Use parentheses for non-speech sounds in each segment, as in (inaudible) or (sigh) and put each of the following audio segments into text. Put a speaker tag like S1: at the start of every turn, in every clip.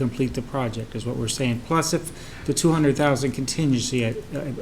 S1: complete the project, is what we're saying. Plus, if the two hundred thousand contingency I,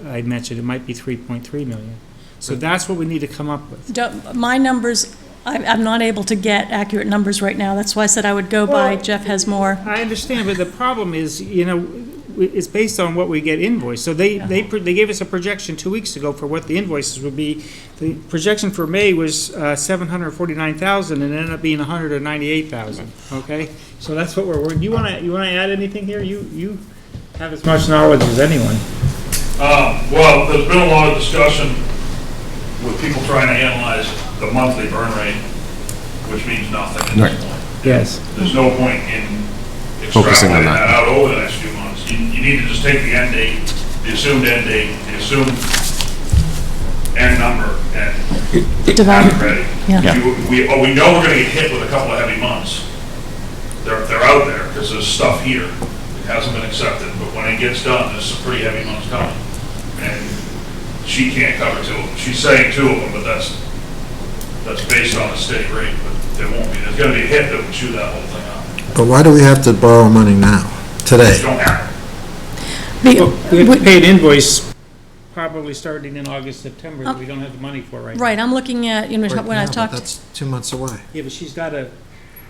S1: I I mentioned, it might be three point three million. So that's what we need to come up with.
S2: Don't- My numbers, I'm, I'm not able to get accurate numbers right now. That's why I said I would go by
S1: Well-
S2: Jeff has more.
S1: I understand, but the problem is, you know, w- it's based on what we get invoiced. So they, they, pr- they gave us a projection two weeks ago for what the invoices would be. The projection for May was uh, seven hundred forty-nine thousand and it ended up being hundred and ninety-eight thousand, okay? So that's what we're, wor- you wanna, you wanna add anything here? You, you have as much knowledge as anyone.
S3: Uh, Well, there's been a lot of discussion with people trying to analyze the monthly burn rate, which means nothing at this point.
S1: Yes.
S3: There's no point in
S4: Focusing on
S3: extrapolating
S4: that.
S3: that out over the next few months. You, you need to just take the end date, the assumed end date, the assumed end number, and have it ready.
S2: Um, Yeah.
S3: You- We, oh, we know we're gonna get hit with a couple of heavy months. They're, they're out there, because there's stuff here that hasn't been accepted, but when it gets done, there's some pretty heavy months coming. And she can't cover two of them. She's saying two of them, but that's, that's based on a steady rate, but there won't be, there's gonna be a hit that would chew that whole thing up.
S5: But why do we have to borrow money now,
S3: You
S5: today?
S3: don't have,
S2: Be-
S1: Well, we have to
S2: would-
S1: pay an invoice probably starting in August, September that we don't have the money for right now.
S2: Right, I'm looking at, you know, when I
S5: Right now, but
S2: talked,
S5: That's two months away.
S1: Yeah, but she's gotta,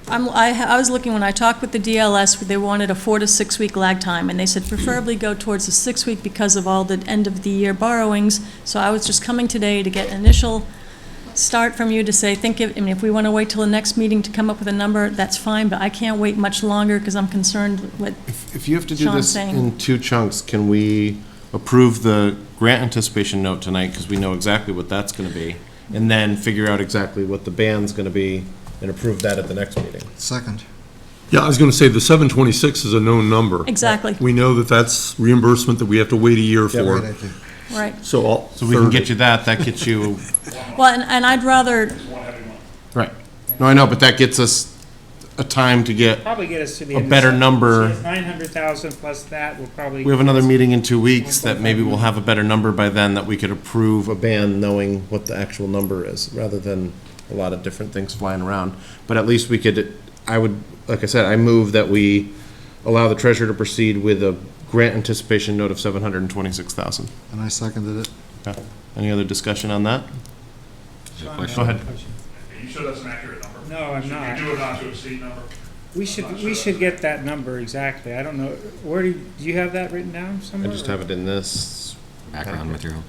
S2: I'm, I, ha- I was looking, when I talked with the DLS, they wanted a four to six week lag time, and they said preferably go towards the six week because of all the end of the year borrowings. So I was just coming today to get initial start from you to say, think, if- I mean, if we want to wait till the next meeting to come up with a number, that's fine, but I can't wait much longer because I'm concerned with,
S4: If you have to do
S2: Sean's
S4: this
S2: saying.
S4: in two chunks, can we approve the grant anticipation note tonight, because we know exactly what that's gonna be, and then figure out exactly what the band's gonna be, and approve that at the next meeting?
S5: Second.
S6: Yeah, I was going to say, the 726 is a known number.
S2: exactly,
S6: We know that that's reimbursement that we have to wait a year
S5: Great
S6: for.
S5: idea.
S2: right.
S6: So I'll.
S4: So we can get you that, that gets you,
S2: Well, and, and I'd rather,
S3: one heavy month.
S4: (laughs) right. No, I know, but that gets us a time to get,
S1: probably get us to the
S4: A
S1: end. of
S4: better
S1: Sep-
S4: number.
S1: so Nine hundred thousand plus that will probably.
S4: we have another meeting in two weeks, that maybe we'll have a better number by then, that we could approve a band knowing what the actual number is, rather than a lot of different things flying around. But at least we could, I would, like I said, I move that we allow the treasurer to proceed with a grant anticipation note of seven hundred and twenty-six thousand.
S5: And I seconded it.
S4: Any other discussion on that? Go ahead.
S3: Are you sure that's an accurate number?
S1: No, I'm not.
S3: Should we do a not to exceed number?
S1: We should, we should get that number exactly. I don't know, where do, you- do you have that written down
S4: I
S1: somewhere?
S4: just have it in this.
S7: background material.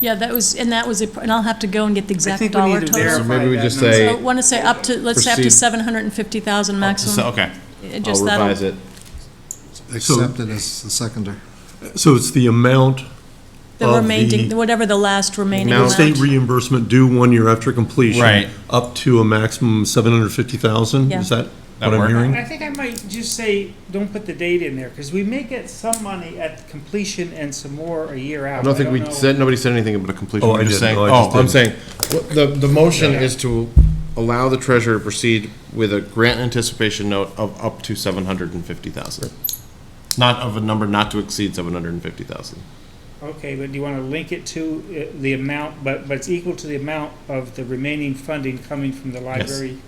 S2: yeah, that was, and that was, it, and I'll have to go and get the
S1: I
S2: exact
S1: think we
S2: dollar
S1: need to
S2: total.
S4: So
S1: verify
S4: maybe we
S1: that
S4: just
S1: number.
S4: say-
S2: So want to say up to, let's say up to
S4: Proceed.
S2: seven hundred and fifty thousand maximum.
S4: Okay,
S2: It
S4: I'll
S2: just that'll-
S4: revise it.
S5: Accepted as the seconder.
S6: So it's the amount
S2: The
S6: of
S2: remaining,
S6: the-
S2: whatever the last remaining
S4: Amount.
S6: of
S2: amount.
S6: state reimbursement due one year after completion.
S4: Right.
S6: Up to a maximum 750,000,
S2: Yeah.
S6: is that
S4: That
S6: what I'm
S4: work?
S6: hearing?
S1: I think I might just say, don't put the date in there, because we may get some money at completion and some more a year out.
S4: I don't think we
S1: know.
S4: said, nobody said anything about a completion.
S6: Oh,
S4: We're
S6: I
S4: just
S6: didn't.
S4: saying-
S6: No, I
S4: Oh,
S6: just
S4: I'm
S6: didn't.
S4: saying, what- the, the motion is to allow the treasurer to proceed with a grant anticipation note of up to seven hundred and fifty thousand. Not of a number not to exceed seven hundred and fifty thousand.
S1: Okay, but do you want to link it to uh, the amount, but, but it's equal to the amount of the remaining funding coming from the library?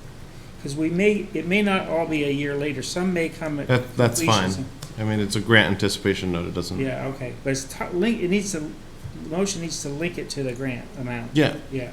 S1: Because we may, it may not all be a year later. Some may come at.
S4: That, that's
S1: completions
S4: fine. I mean, it's a grant anticipation note, it
S1: and-
S4: doesn't,
S1: Yeah, okay, but it's, to- link, it needs to, the motion needs to link it to the grant amount.
S4: yeah,
S1: Yeah,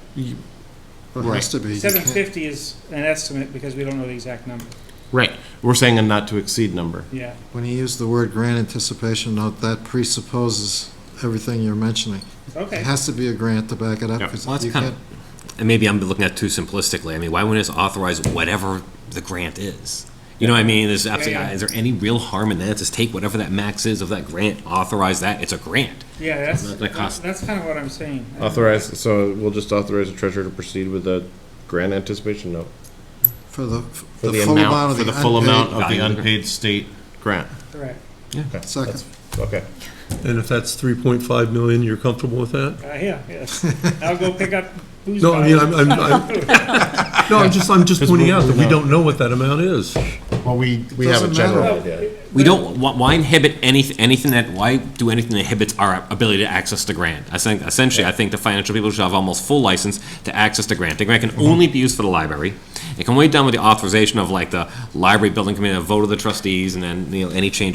S5: Well, It has to be. You
S1: seven
S5: can't-
S1: fifty is an estimate because we don't know the exact number,
S4: right. We're saying a not to exceed number.
S1: yeah.
S5: When you use the word grant anticipation note, that presupposes everything you're mentioning. It
S1: Okay,
S5: has to be a grant to back it up,
S4: Yeah.
S5: because
S7: Well, that's
S5: you
S7: kind
S5: can't,
S7: of- And maybe I'm looking at it too simplistically. I mean, why wouldn't it just authorize whatever the grant is? You know what I mean? There's absolutely,
S1: Yeah, yeah.
S7: is there any real harm in that? Just take whatever that max is of that grant, authorize that. It's a grant.
S1: yeah,
S7: Not gonna
S1: that's,
S7: cost-
S1: that's kind of what I'm saying.
S4: Authorize, so we'll just authorize the treasurer to proceed with a grant anticipation note.
S5: for the,
S4: For
S5: the
S4: the
S5: full amount
S4: amount,
S5: of
S4: for
S5: the
S4: the full amount of
S5: unpaid.
S4: the
S7: Value of the
S4: unpaid state grant.
S1: Correct,
S5: Second.
S4: Okay.
S6: And if that's 3.5 million, you're comfortable with that?
S1: uh, yeah, yes, I'll go pick up booze
S6: No, I mean, I'm,
S1: bottles.
S6: I'm,
S1: (laughs)
S6: I'm- no, I'm just, I'm just
S4: Because
S6: pointing
S4: we-
S6: out that
S4: we
S6: we
S4: know.
S6: don't know what that amount is.
S4: Well, we, we have a
S5: Doesn't matter.
S4: general
S1: Well,
S4: idea.
S7: We don't, why- why inhibit any, anything that, why do anything that inhibits our ability to access the grant? I think,
S1: Mm-hmm.
S7: essentially, I think the financial people should have almost full license to access the grant. The grant can only be used for the library. It can wait down with the authorization of like the library building committee, a vote of the trustees, and then, you know, any change